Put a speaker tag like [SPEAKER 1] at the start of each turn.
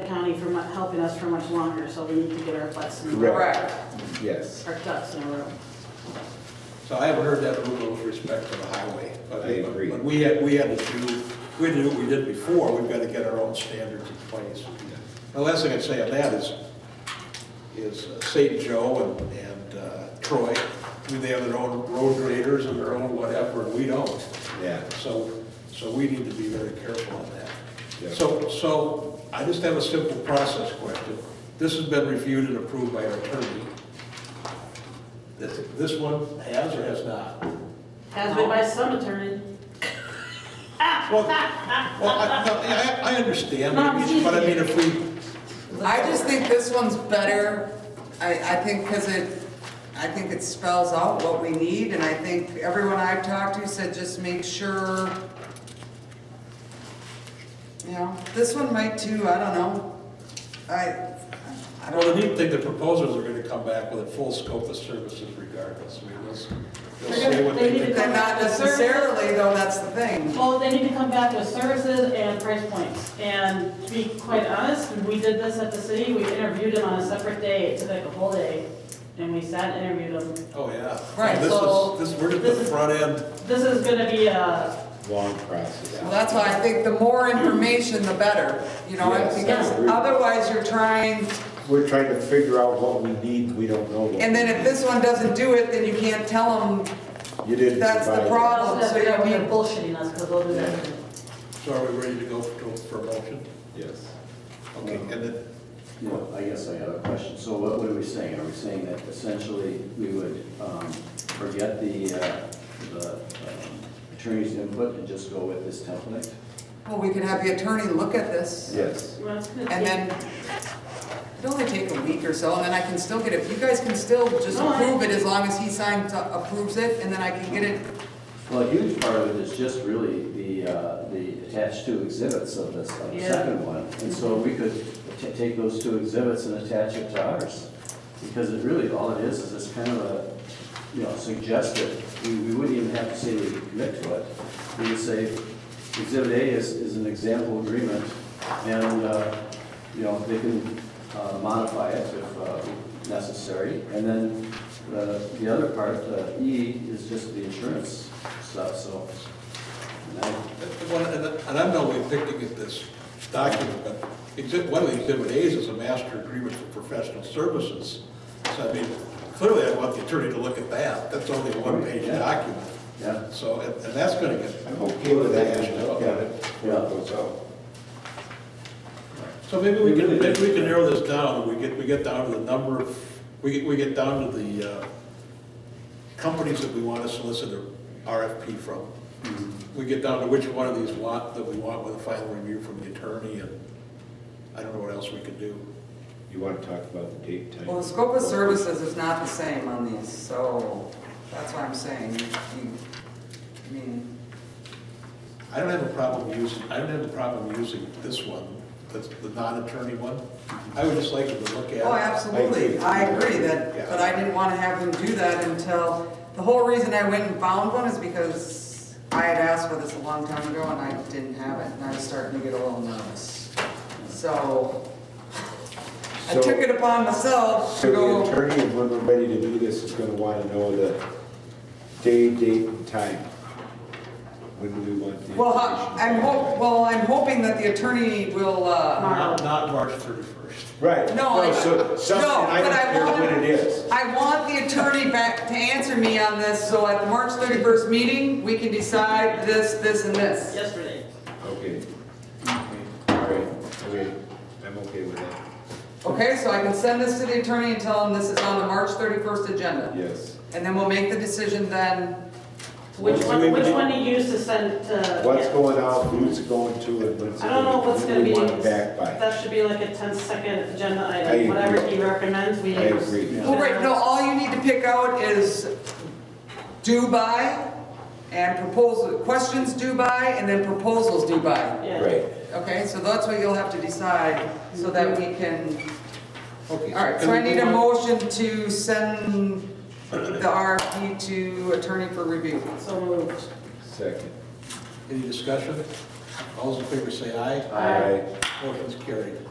[SPEAKER 1] county for mu- helping us for much longer, so we need to get our butts in,
[SPEAKER 2] Correct.
[SPEAKER 1] our
[SPEAKER 3] Correct.
[SPEAKER 2] Yes.
[SPEAKER 1] ducks in a row.
[SPEAKER 4] So I haven't heard that rule with respect to the highway. but-
[SPEAKER 2] I agree.
[SPEAKER 4] But we had, we had to do, we had to do what we did before, we've got to get our own standards in place. The last thing I'd say on that is, is uh, St. Joe and, and uh, Troy, I mean, they have their own road graders and their own whatever, and we don't.
[SPEAKER 2] Yeah.
[SPEAKER 4] So, so we need to be very careful on
[SPEAKER 2] Yeah.
[SPEAKER 4] that. So, so I just have a simple process question. This has been reviewed and approved by our attorney. This, this one has or has not?
[SPEAKER 1] Has been by some attorney.
[SPEAKER 4] Well, well, I, no, I- I understand,
[SPEAKER 1] Not easy.
[SPEAKER 4] but I mean, if we,
[SPEAKER 3] I just think this one's better, I, I think, because it, I think it spells out what we need, and I think everyone I've talked to said just make sure, you know, this one might too, I don't know. I, I
[SPEAKER 4] well, the
[SPEAKER 3] don't,
[SPEAKER 4] neat thing, the proposals are gonna come back with a full scope of services regardless. I mean, let's, they'll say what they
[SPEAKER 1] They need
[SPEAKER 4] think.
[SPEAKER 1] to-
[SPEAKER 3] they're not necessarily, though, that's the thing.
[SPEAKER 1] Well, they need to come back with services and price points. And to be quite honest, we did this at the city, we interviewed them on a separate day, it took like a whole day. And we sat and interviewed them.
[SPEAKER 4] Oh, yeah.
[SPEAKER 3] Right,
[SPEAKER 4] This
[SPEAKER 3] so-
[SPEAKER 4] is, this, we're at
[SPEAKER 1] this
[SPEAKER 4] the
[SPEAKER 1] is-
[SPEAKER 4] front end.
[SPEAKER 1] This is gonna be a,
[SPEAKER 2] Long process.
[SPEAKER 3] Well, that's why I think the more information, the better, you know,
[SPEAKER 2] Yes, I
[SPEAKER 3] because
[SPEAKER 2] agree.
[SPEAKER 3] otherwise you're trying,
[SPEAKER 2] We're trying to figure out what we need, we don't know. what
[SPEAKER 3] and then if this one doesn't do it, then you can't tell them
[SPEAKER 2] You didn't
[SPEAKER 3] that's the
[SPEAKER 2] provide it.
[SPEAKER 3] problem.
[SPEAKER 1] also
[SPEAKER 3] so
[SPEAKER 1] they're
[SPEAKER 3] you
[SPEAKER 1] gonna be
[SPEAKER 3] need-
[SPEAKER 1] bullshitting us, because they'll do that.
[SPEAKER 4] So are we ready to go for, for a motion?
[SPEAKER 2] Yes.
[SPEAKER 4] Okay, and then,
[SPEAKER 5] Well, I guess I have a question. So what what are we saying? Are we saying that essentially we would um, forget the uh, the, um, attorney's input and just go with this template?
[SPEAKER 3] Well, we could have the attorney look at this,
[SPEAKER 2] Yes.
[SPEAKER 1] Well, it's gonna take-
[SPEAKER 3] and then it'd only take a week or so, and then I can still get it, you guys can still just
[SPEAKER 1] No, I-
[SPEAKER 3] approve it as long as he signs, approves it, and then I can get it.
[SPEAKER 5] Well, a huge part of it is just really the, uh, the attached two exhibits of this, of the
[SPEAKER 1] Yeah.
[SPEAKER 5] second one. And so we could t- take those two exhibits and attach it to ours. Because it really, all it is, is it's kind of a, you know, suggested, we, we wouldn't even have to say we commit to it. We would say, exhibit A is, is an example agreement, and, uh, you know, they can uh, modify it if uh, necessary. And then the, the other part, uh, E, is just the insurance stuff, so. and I-
[SPEAKER 4] well, and and I'm not only picking at this document, but exhibit, one of the exhibit A's is a master agreement for professional services. So I mean, clearly I want the attorney to look at that. That's only a one-page
[SPEAKER 5] Yeah.
[SPEAKER 4] document.
[SPEAKER 5] Yeah.
[SPEAKER 4] So, and and that's gonna get.
[SPEAKER 2] I'm okay with that, I look at it,
[SPEAKER 5] Yeah.
[SPEAKER 2] where it goes out.
[SPEAKER 4] So maybe we
[SPEAKER 5] We
[SPEAKER 4] can,
[SPEAKER 5] really
[SPEAKER 4] maybe we
[SPEAKER 5] did.
[SPEAKER 4] can narrow this down, we get, we get down to the number of, we get, we get down to the uh, companies that we want to solicit an RFP from. We get down to which one of these lot that we want with a final review from the attorney, and I don't know what else we could do.
[SPEAKER 2] You want to talk about the date, time?
[SPEAKER 3] Well, the scope of services is not the same on these, so that's what I'm saying. You- you- I mean,
[SPEAKER 4] I don't have a problem using, I don't have a problem using this one, that's the non-attorney one. I would just like you to look at it.
[SPEAKER 3] Oh, absolutely, I agree that, but I didn't want to have him do that until, the whole reason I went and found one is because I had asked for this a long time ago and I didn't have it, and I was starting to get a little nervous. So, I
[SPEAKER 2] So-
[SPEAKER 3] took it upon myself
[SPEAKER 2] So
[SPEAKER 3] to
[SPEAKER 2] the
[SPEAKER 3] go,
[SPEAKER 2] attorney, when we're ready to do this, is going to want to know the day, date, and time. When do we want the
[SPEAKER 3] well, I-
[SPEAKER 2] information?
[SPEAKER 3] I'm hope, well, I'm hoping that the attorney will, uh,
[SPEAKER 4] Not, not March thirty-first.
[SPEAKER 2] Right.
[SPEAKER 3] No, I-
[SPEAKER 2] so-
[SPEAKER 3] no,
[SPEAKER 2] Something, I
[SPEAKER 3] but I
[SPEAKER 2] don't care
[SPEAKER 3] wanna-
[SPEAKER 2] when it is.
[SPEAKER 3] I want the attorney back to answer me on this, so at the March thirty-first meeting, we can decide this, this, and this.
[SPEAKER 1] Yesterday.
[SPEAKER 2] Okay. All right, okay, I'm okay with that.
[SPEAKER 3] Okay, so I can send this to the attorney and tell him this is on the March 31st agenda?
[SPEAKER 2] Yes.
[SPEAKER 3] And then we'll make the decision then,
[SPEAKER 1] Which
[SPEAKER 2] So
[SPEAKER 1] one,
[SPEAKER 2] maybe
[SPEAKER 1] which
[SPEAKER 2] do-
[SPEAKER 1] one to use to send to?
[SPEAKER 2] What's
[SPEAKER 1] yeah.
[SPEAKER 2] going out, who's going to it, what's.
[SPEAKER 1] I don't know what's gonna be.
[SPEAKER 2] When do we want it back by?
[SPEAKER 1] That should be like a 10-second agenda
[SPEAKER 2] I agree.
[SPEAKER 1] item, whatever he recommends, we.
[SPEAKER 2] I agree.
[SPEAKER 3] well, right, no, all you need to pick out is due by and proposal, questions due by, and then proposals due by.
[SPEAKER 1] Yeah.
[SPEAKER 2] Right.
[SPEAKER 3] Okay, so that's what you'll have to decide, so that we can,
[SPEAKER 4] Okay.
[SPEAKER 3] all right, so I need a motion to send the RFP to attorney for review.
[SPEAKER 1] So moved.
[SPEAKER 2] Second.
[SPEAKER 4] Any discussion? All those in favor say aye.
[SPEAKER 1] Aye.
[SPEAKER 2] Aye.
[SPEAKER 4] Motion's carried.